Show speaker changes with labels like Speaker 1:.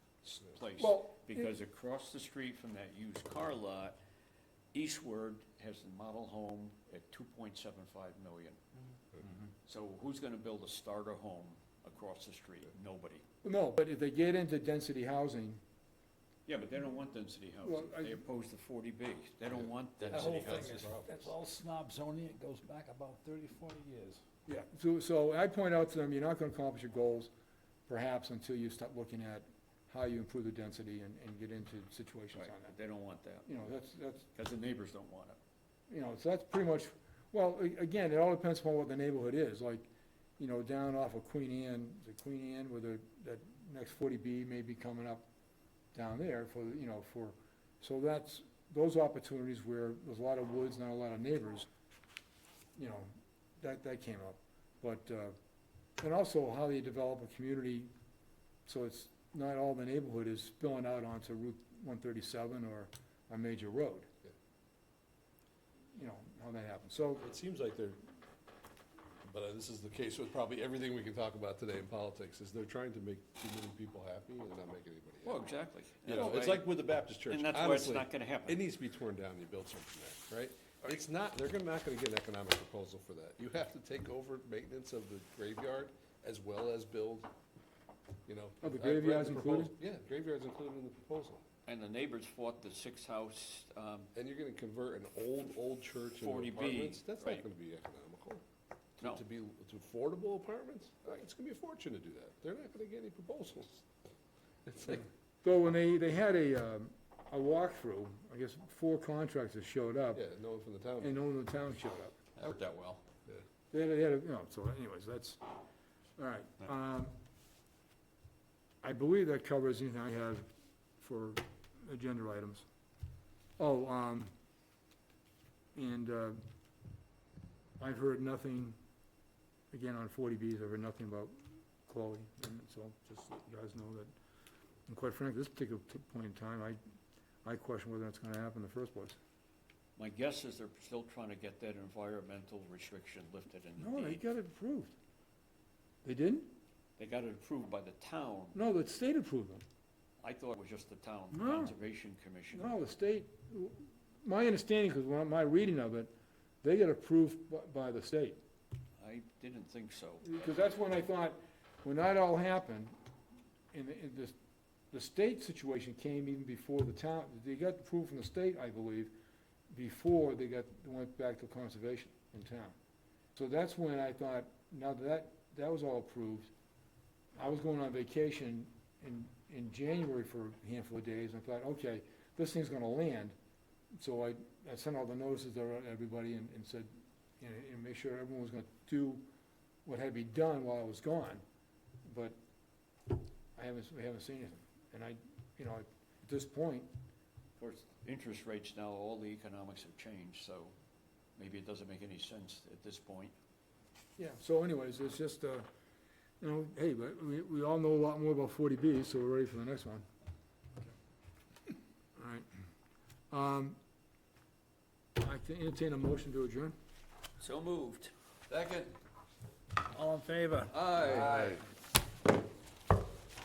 Speaker 1: place.
Speaker 2: Well, it-
Speaker 1: Because across the street from that used car lot, Eastward has the model home at two point seven five million.
Speaker 3: Mm-hmm.
Speaker 1: So who's gonna build a starter home across the street? Nobody.
Speaker 2: No, but if they get into density housing,
Speaker 1: Yeah, but they don't want density
Speaker 2: Well,
Speaker 1: housing.
Speaker 2: I-
Speaker 1: They oppose the forty B. They don't want
Speaker 3: That whole
Speaker 1: density
Speaker 3: thing
Speaker 1: housing.
Speaker 3: is, that's all snob zoning, it goes back about thirty, forty years.
Speaker 2: yeah, so, so I point out to them, you're not gonna accomplish your goals, perhaps, until you start looking at how you improve the density and, and get into situations
Speaker 1: Right,
Speaker 2: on that.
Speaker 1: they don't want that,
Speaker 2: You know, that's, that's,
Speaker 1: because the neighbors don't want it.
Speaker 2: you know, so that's pretty much, well, a- again, it all depends upon what the neighborhood is, like, you know, down off of Queen Anne, the Queen Anne with the, that next forty B may be coming up down there for, you know, for, so that's, those opportunities where there's a lot of woods, not a lot of neighbors, you know, that, that came up. But, uh, and also how you develop a community, so it's not all the neighborhood is spilling out onto Route one thirty-seven or a major road. You know, how that happens, so,
Speaker 4: It seems like they're, but uh, this is the case with probably everything we can talk about today in politics, is they're trying to make too many people happy and not make anybody
Speaker 1: Well,
Speaker 4: happy.
Speaker 1: exactly.
Speaker 4: You
Speaker 1: That's
Speaker 4: know, it's
Speaker 1: why-
Speaker 4: like with the Baptist church,
Speaker 1: And that's why it's
Speaker 4: honestly,
Speaker 1: not gonna
Speaker 4: it
Speaker 1: happen.
Speaker 4: needs to be torn down, you build something there, right? It's not, they're gonna- not gonna get an economic proposal for that. You have to take over maintenance of the graveyard as well as build, you know.
Speaker 2: Oh, the
Speaker 4: I've read
Speaker 2: graveyard's
Speaker 4: proposal.
Speaker 2: included?
Speaker 4: Yeah, graveyard's included in the proposal.
Speaker 1: And the neighbors fought the six house, um,
Speaker 4: And you're gonna convert an old, old church into
Speaker 1: 40B,
Speaker 4: apartments? That's
Speaker 1: right.
Speaker 4: not gonna be economical. to-
Speaker 1: No.
Speaker 4: To be, to affordable apartments, Uh, it's gonna be a fortune to do that. They're not gonna get any proposals. It's like,
Speaker 2: though when they, they had a, um, a walkthrough, I guess four contractors showed up,
Speaker 4: yeah, no one from the town.
Speaker 2: and no one in the town showed up.
Speaker 1: that worked out well.
Speaker 2: They had, they had, a- you know, so anyways, that's, all right. Um, I believe that covers anything I have for agenda items. Oh, um, and, uh, I've heard nothing, again, on forty Bs, I've heard nothing about Chloe, and so just so you guys know that. And quite frankly, this particular t- point in time, I, I question whether that's gonna happen in the first place.
Speaker 1: My guess is they're still trying to get that environmental restriction lifted in
Speaker 2: No,
Speaker 1: the
Speaker 2: they
Speaker 1: deed.
Speaker 2: got it approved. They didn't?
Speaker 1: They got it approved by the town.
Speaker 2: No, the state approved them.
Speaker 1: I thought it was just the town
Speaker 2: No.
Speaker 1: conservation commission.
Speaker 2: No, the state, my understanding, because when my reading of it, they get approved by- by the state.
Speaker 1: I didn't think so.
Speaker 2: Because that's when I thought, when that all happened, and the, and the, the state situation came even before the town, they got approved from the state, I believe, before they got, went back to conservation in town. So that's when I thought, now that that, that was all approved, I was going on vacation in, in January for a handful of days, and I thought, okay, this thing's gonna land. So I, I sent all the notices to everybody and, and said, you know, and make sure everyone was gonna do what had to be done while I was gone, but I haven't, we haven't seen anything. And I, you know, at this point,
Speaker 1: Of course, interest rates now, all the economics have changed, so maybe it doesn't make any sense at this point.
Speaker 2: yeah, so anyways, it's just, uh, you know, hey, but we, we all know a lot more about forty B, so we're ready for the next one. All right. Um, I can entertain a motion to adjourn.
Speaker 1: So moved.
Speaker 4: Second.
Speaker 3: All in favor?
Speaker 4: Aye.